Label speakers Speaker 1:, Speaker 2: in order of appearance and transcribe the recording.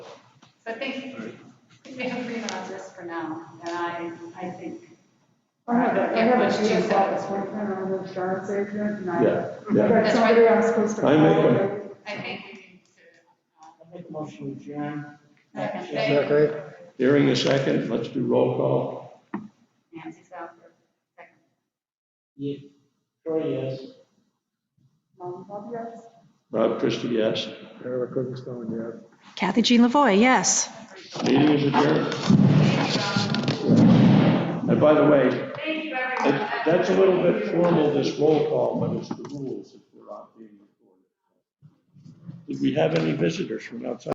Speaker 1: So I think, I think we have agreement on this for now, and I, I think,
Speaker 2: I have a, I have a GS office working on the insurance agent and I,
Speaker 3: Yeah, yeah.
Speaker 2: but somebody I'm supposed to.
Speaker 3: I make
Speaker 2: call.
Speaker 1: I think we need to. uh,
Speaker 4: I make a motion to adjourn.
Speaker 1: Second,
Speaker 4: Second.
Speaker 1: thank you.
Speaker 3: Hearing a second, let's do roll call.
Speaker 1: Nancy Southworth, second.
Speaker 4: Yeah. Troy, yes.
Speaker 2: Um, Bob, yes.
Speaker 3: Rob Christie, yes.
Speaker 5: Eric Livingstone, yes.
Speaker 6: Kathy Jean Lavoy, yes.
Speaker 3: Meeting is adjourned. And by the way,
Speaker 1: Thank you, everyone.
Speaker 3: it- that's a little bit formal, this roll call, but it's the rules if we're not being recorded. Did we have any visitors from outside?